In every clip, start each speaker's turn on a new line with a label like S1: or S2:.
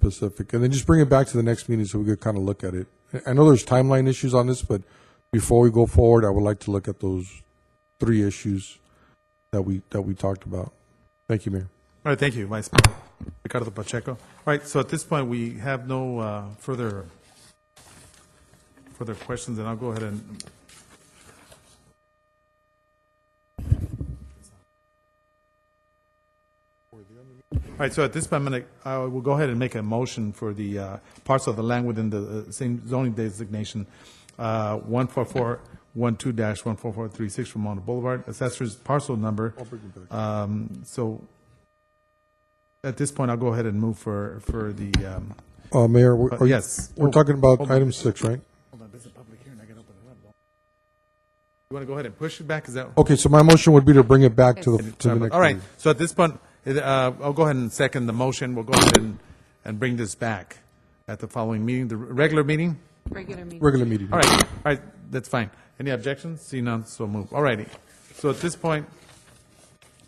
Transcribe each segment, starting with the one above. S1: Pacific, and then just bring it back to the next meeting so we could kind of look at it. I- I know there's timeline issues on this, but before we go forward, I would like to look at those three issues that we, that we talked about. Thank you, Mayor.
S2: All right, thank you, Vice Ricardo Pacheco. All right, so at this point, we have no uh, further, further questions, and I'll go ahead and, all right, so at this point, I'm going to, I will go ahead and make a motion for the uh, parts of the land within the uh, same zoning designation, uh, 14412-14436 from Ramona Boulevard, assessor's parcel number. Um, So at this point, I'll go ahead and move for, for the, um,
S1: Uh, Mayor, we're- are you-
S2: yes.
S1: We're talking about item six, right?
S2: You want to go ahead and push it back? Is that?
S1: Okay, so my motion would be to bring it back to the, to Oh, the next.
S2: All right.
S1: meeting.
S2: So at this point, it, uh, I'll go ahead and second the motion. We'll go ahead and, and bring this back at the following meeting, the regular meeting.
S3: Regular meeting.
S1: Regular meeting.
S2: All right, all right, that's fine. Any objections? See none, so move. All righty. So at this point,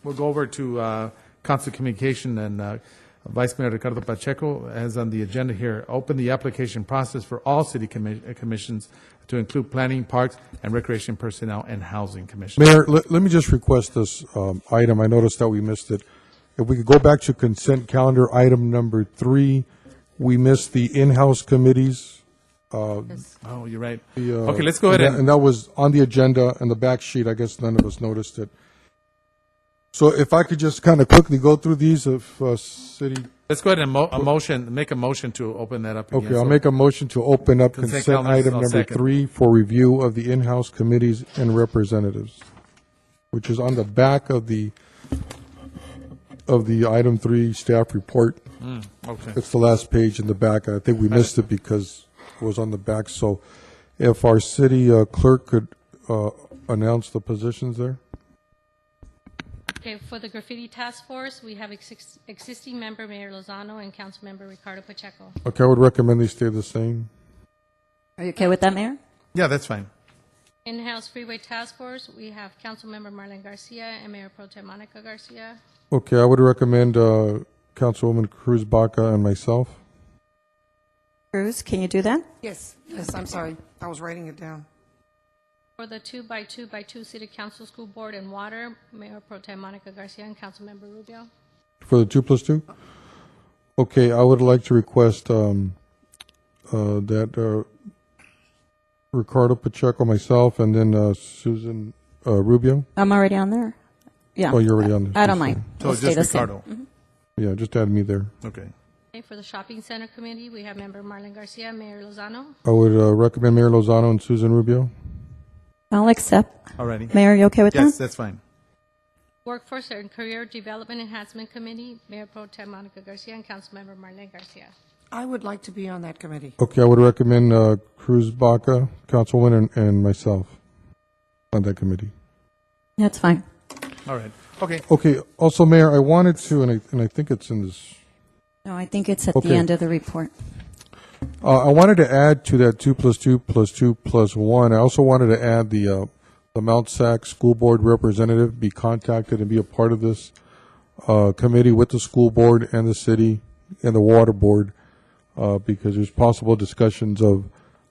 S2: we'll go over to uh, Council Communication and uh, Vice Mayor Ricardo Pacheco has on the agenda here, open the application process for all city commi- uh, commissions to include planning, parks, and recreation personnel and housing commission.
S1: Mayor, let, let me just request this um, item. I noticed that we missed it. If we could go back to consent calendar, item number three, we missed the in-house committees.
S2: Oh, you're right.
S1: The, uh,
S2: Okay, let's go ahead
S1: and that- And
S2: and,
S1: that was on the agenda and the back sheet. I guess none of us noticed it. So if I could just kind of quickly go through these, if uh, city,
S2: let's go ahead and mo- a motion, make a motion to open that up again.
S1: okay, I'll
S2: So-
S1: make a motion to open up
S2: Consent
S1: consent
S2: calendars,
S1: item
S2: I'll
S1: number
S2: second.
S1: three for review of the in-house committees and representatives, which is on the back of the, of the item three staff report.
S2: Okay.
S1: It's the last page in the back. I think we missed it because it was on the back. So if our city uh, clerk could uh, announce the positions there?
S4: Okay, for the graffiti task force, we have ex- existing member Mayor Lozano and Councilmember Ricardo Pacheco.
S1: Okay, I would recommend they stay the same.
S3: Are you okay with that, Mayor?
S2: Yeah, that's fine.
S4: In-house freeway task force, we have Councilmember Marlon Garcia and Mayor Pro Tem Monica Garcia.
S1: Okay, I would recommend uh, Councilwoman Cruz Baca and myself.
S3: Cruz, can you do that?
S5: Yes, yes, I'm sorry. I was writing it down.
S4: For the two-by-two-by-two city council, school board, and water, Mayor Pro Tem Monica Garcia and Councilmember Rubio.
S1: For the two plus two? Okay, I would like to request um, uh, that uh, Ricardo Pacheco, myself, and then uh, Susan uh, Rubio.
S3: I'm already on there. Yeah.
S1: Oh, you're already on there.
S3: I don't mind.
S2: So
S3: We'll stay
S2: just
S3: the same. Mm-hmm.
S2: Ricardo.
S1: Yeah, just add me there.
S2: Okay.
S4: Okay, for the shopping center committee, we have member Marlon Garcia, Mayor Lozano.
S1: I would uh, recommend Mayor Lozano and Susan Rubio.
S3: I'll accept.
S2: All righty.
S3: Mayor, you okay with
S2: Yes,
S3: that?
S2: that's fine.
S4: Workforce and Career Development Enhancement Committee, Mayor Pro Tem Monica Garcia and Councilmember Marlon Garcia.
S5: I would like to be on that committee.
S1: Okay, I would recommend uh, Cruz Baca, Councilwoman, and, and myself on that committee.
S3: That's fine.
S2: All right. Okay.
S1: Okay, also, Mayor, I wanted to, and I, and I think it's in this,
S3: No, I think it's at
S1: Okay.
S3: the end of the report.
S1: uh, I wanted to add to that two plus two plus two plus one. I also wanted to add the, uh, the Mount Sac School Board representative be contacted and be a part of this uh, committee with the school board and the city and the water board uh, because there's possible discussions of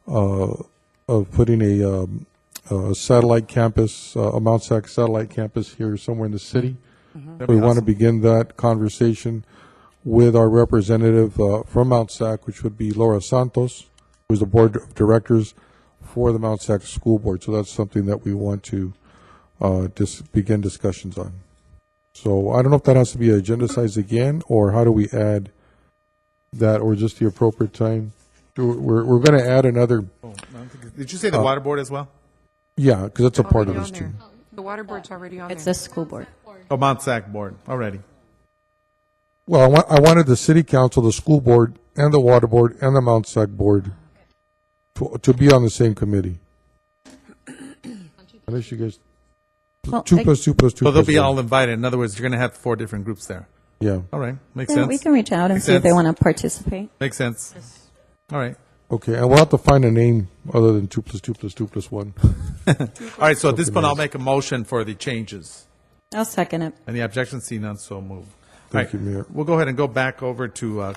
S1: uh, of putting a, um, a satellite campus, uh, a Mount Sac satellite campus here somewhere in the city. We want to begin that conversation with our representative uh, from Mount Sac, which would be Laura Santos, who's the board of directors for the Mount Sac School Board. So that's something that we want to uh, dis- begin discussions on. So I don't know if that has to be agendized again, or how do we add that, or just the appropriate time? Do- We're, we're going to add another,
S2: Did you say the water board as well?
S1: yeah, because that's a part of
S5: Already
S1: this
S5: on
S1: too.
S5: there. The water board's already on
S3: It's
S5: there.
S3: the school board.
S2: Oh, Mount Sac board. Already.
S1: Well, I wa- I wanted the city council, the school board, and the water board, and the Mount Sac board to, to be on the same committee. Unless you guys,
S3: Well,
S1: two
S3: I-
S1: plus two plus two.
S2: So they'll
S1: plus
S2: be
S1: one.
S2: all invited. In other words, you're going to have four different groups there.
S1: Yeah,
S2: All right, makes
S3: Yeah,
S2: sense.
S3: we can reach out and
S2: Makes
S3: see if they
S2: sense.
S3: want to participate.
S2: Makes sense. All right.
S1: okay, and we'll have to find a name other than two plus two plus two plus one.
S2: All right. So at this point, I'll make a motion for the changes.
S3: I'll second it.
S2: Any objections? See none. So move. All
S1: Thank
S2: right,
S1: you, Mayor.
S2: We'll go ahead and go back over to uh,